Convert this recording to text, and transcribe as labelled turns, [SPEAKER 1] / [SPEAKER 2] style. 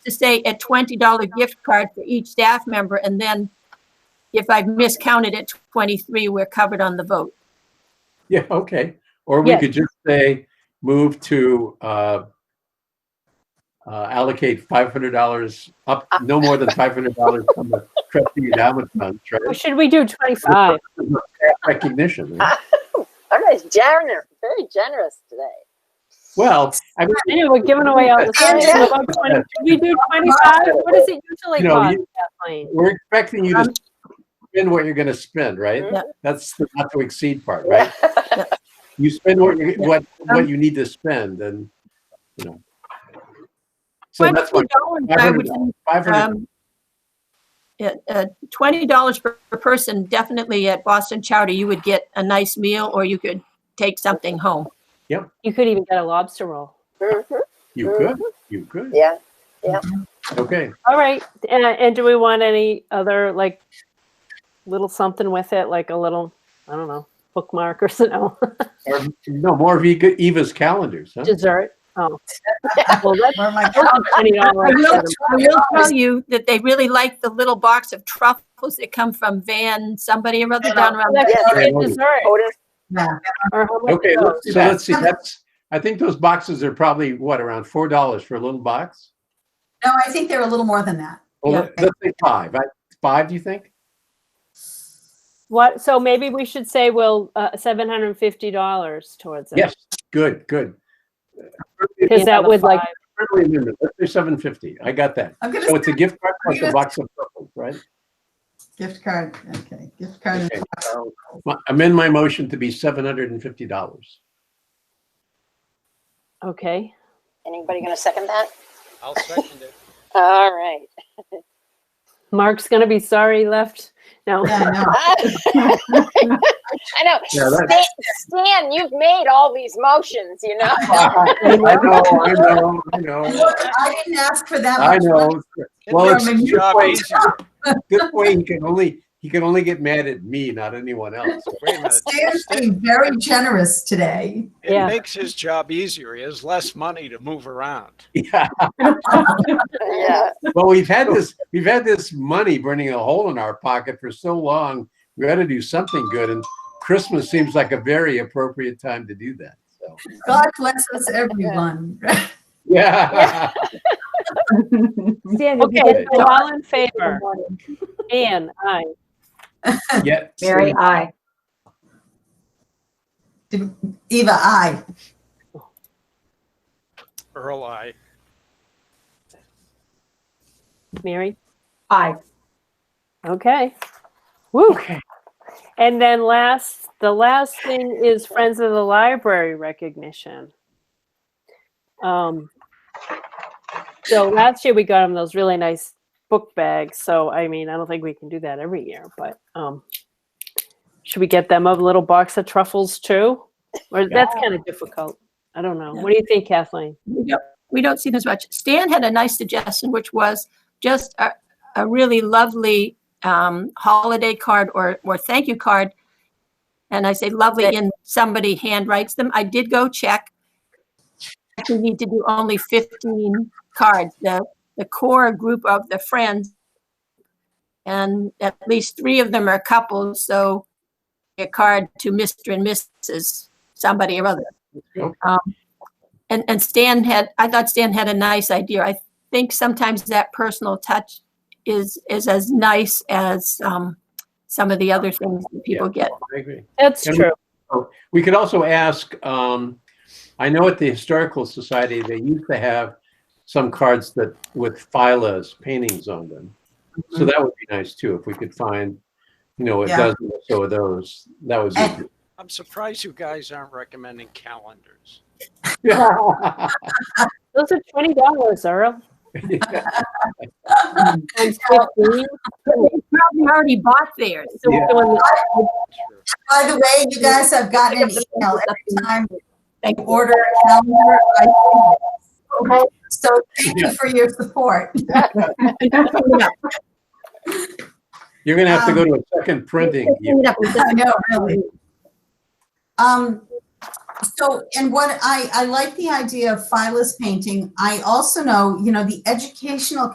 [SPEAKER 1] to say a $20 gift card for each staff member, and then if I've miscounted at 23, we're covered on the vote.
[SPEAKER 2] Yeah, okay. Or we
[SPEAKER 3] Yes.
[SPEAKER 2] could just say, move to uh, uh, allocate $500 up,
[SPEAKER 1] Uh.
[SPEAKER 2] no more than $500 from the trustee endowment fund,
[SPEAKER 3] Or
[SPEAKER 2] right?
[SPEAKER 3] should we do 25?
[SPEAKER 2] Recognition. right?
[SPEAKER 4] Everybody's generous, very generous today.
[SPEAKER 2] Well, I mean,
[SPEAKER 3] I know, we're giving away all the things.
[SPEAKER 4] Yeah.
[SPEAKER 3] What about 20? Should we do 25? What does it usually
[SPEAKER 2] You know,
[SPEAKER 3] cost,
[SPEAKER 2] you-
[SPEAKER 3] Kathleen?
[SPEAKER 2] we're expecting you to spend what you're going to spend, right?
[SPEAKER 1] Um, Yeah.
[SPEAKER 2] That's the not to exceed part, right? You spend what, you- what,
[SPEAKER 1] Um,
[SPEAKER 2] what you need to spend and, you know. So that's what,
[SPEAKER 1] $20, I would
[SPEAKER 2] 500,
[SPEAKER 1] Um, yeah, uh, twenty dollars per per person, definitely at Boston Chowder, you would get a nice meal or you could take something home.
[SPEAKER 3] You could even get a lobster roll.
[SPEAKER 4] Mhm.
[SPEAKER 1] um,
[SPEAKER 2] you could, you could.
[SPEAKER 4] Yeah,
[SPEAKER 2] Okay.
[SPEAKER 3] All right. And, and do we want any other, like, little something with it, like a little, I don't know, bookmark or something?
[SPEAKER 2] Or, no, more of Eva- Eva's calendars, huh?
[SPEAKER 3] Dessert? Oh. Well, that's
[SPEAKER 5] Or my
[SPEAKER 1] I will,
[SPEAKER 3] $20.
[SPEAKER 1] I will tell you that they really like the little box of truffles that come from Van, somebody or other down around.
[SPEAKER 3] That's
[SPEAKER 4] Yes.
[SPEAKER 3] great dessert.
[SPEAKER 4] Otis,
[SPEAKER 5] yeah,
[SPEAKER 3] Or how much
[SPEAKER 2] Okay,
[SPEAKER 3] those?
[SPEAKER 2] let's, so let's see, that's, I think those boxes are probably, what, around four dollars for a little box?
[SPEAKER 5] no, I think they're a little more than that.
[SPEAKER 2] Well,
[SPEAKER 1] Yeah.
[SPEAKER 2] let- let's say five, I- five, do you think?
[SPEAKER 3] What, so maybe we should say, well, uh, $750 towards it.
[SPEAKER 2] Yes, good, good.
[SPEAKER 3] Because that would like,
[SPEAKER 2] Friendly amendment, let's do seven fifty, I got that.
[SPEAKER 5] I'm
[SPEAKER 2] So
[SPEAKER 5] gonna
[SPEAKER 2] it's a gift card plus a box of purple, right?
[SPEAKER 5] gift card. Okay, gift card.
[SPEAKER 2] Okay. so Amend my motion to be seven hundred and fifty dollars.
[SPEAKER 3] okay.
[SPEAKER 4] anybody going to second that?
[SPEAKER 6] I'll second it.
[SPEAKER 4] All right.
[SPEAKER 3] Mark's gonna be sorry he left. No,
[SPEAKER 5] Yeah, no,
[SPEAKER 4] I know.
[SPEAKER 2] Yeah,
[SPEAKER 4] Stan,
[SPEAKER 2] that's-
[SPEAKER 4] Stan, you've made all these motions, you know?
[SPEAKER 2] I know, I know, I know,
[SPEAKER 5] Look, I didn't ask for that.
[SPEAKER 2] I
[SPEAKER 5] much money.
[SPEAKER 2] know.
[SPEAKER 6] It
[SPEAKER 2] Well,
[SPEAKER 6] makes
[SPEAKER 2] it's-
[SPEAKER 6] the job easier.
[SPEAKER 2] This way he can only, he can only get mad at me, not anyone else.
[SPEAKER 6] Wait a minute.
[SPEAKER 5] Stan's being very generous today.
[SPEAKER 3] Yeah.
[SPEAKER 6] It makes his job easier. He has less money to move around.
[SPEAKER 2] Yeah,
[SPEAKER 4] Yeah.
[SPEAKER 2] well, we've had this, we've had this money burning a hole in our pocket for so long. We ought to do something good and Christmas seems like a very appropriate time to do that, so.
[SPEAKER 5] God bless us, everyone.
[SPEAKER 2] Yeah,
[SPEAKER 3] okay,
[SPEAKER 2] Okay.
[SPEAKER 3] so all in favor? Anne, aye.
[SPEAKER 2] yeah.
[SPEAKER 7] Mary, aye.
[SPEAKER 5] Eva, I.
[SPEAKER 6] Earl, I,
[SPEAKER 3] Mary,
[SPEAKER 7] Aye.
[SPEAKER 3] okay. Woo. And then last, the last thing is Friends of the Library recognition. Um, so last year we got them those really nice book bags. So I mean, I don't think we can do that every year, but um, should we get them a little box of truffles too? Or that's kind of difficult. I don't know. What do you think, Kathleen?
[SPEAKER 1] We don't- we don't see this much. Stan had a nice suggestion, which was just a, a really lovely um, holiday card or, or thank you card. And I say lovely, and somebody handwrites them. I did go check. We need to do only 15 cards, the, the core group of the friends. And at least three of them are couples, so a card to Mr. and Mrs. somebody or other.
[SPEAKER 2] Okay.
[SPEAKER 1] Um, and, and Stan had, I thought Stan had a nice idea. I think sometimes that personal touch is, is as nice as, um, some of the other things that people get.
[SPEAKER 2] I agree.
[SPEAKER 3] That's
[SPEAKER 2] Can we-
[SPEAKER 3] true.
[SPEAKER 2] We could also ask, um, I know at the Historical Society, they used to have some cards that with Phyla's paintings on them. So that would be nice too, if we could find, you know, a
[SPEAKER 5] Yeah.
[SPEAKER 2] dozen or so of those, that would
[SPEAKER 5] And-
[SPEAKER 2] be.
[SPEAKER 6] I'm surprised you guys aren't recommending calendars.
[SPEAKER 2] Yeah.
[SPEAKER 3] Those are twenty dollars, Earl. Times fifteen.
[SPEAKER 1] Probably already bought theirs.
[SPEAKER 3] So we're
[SPEAKER 2] Yeah.
[SPEAKER 3] doing the-
[SPEAKER 5] By the way, you guys have gotten an email every time
[SPEAKER 1] Thank
[SPEAKER 5] you
[SPEAKER 1] you.
[SPEAKER 5] order a calendar. I- So thank you for your support.
[SPEAKER 2] You're gonna have to go to a second printing.
[SPEAKER 1] Clean it up.
[SPEAKER 5] I know, really. Um, So, and what I, I like the idea of phyllis painting. I also know, you know, the educational